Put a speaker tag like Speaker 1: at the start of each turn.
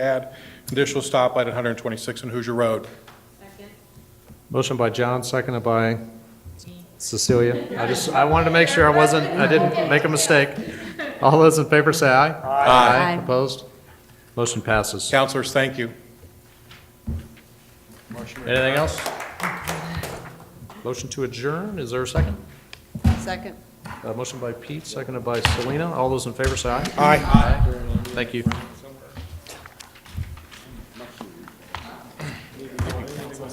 Speaker 1: add additional stoplight at 126 and Hoosier Road.
Speaker 2: Second.
Speaker 3: Motion by John, seconded by Cecilia. I just, I wanted to make sure I wasn't, I didn't make a mistake. All those in favor say aye.
Speaker 1: Aye.
Speaker 3: Opposed? Motion passes.
Speaker 1: Counselors, thank you.
Speaker 3: Anything else? Motion to adjourn, is there a second?
Speaker 4: Second.
Speaker 3: Uh, Motion by Pete, seconded by Selena. All those in favor say aye.
Speaker 1: Aye.
Speaker 3: Thank you.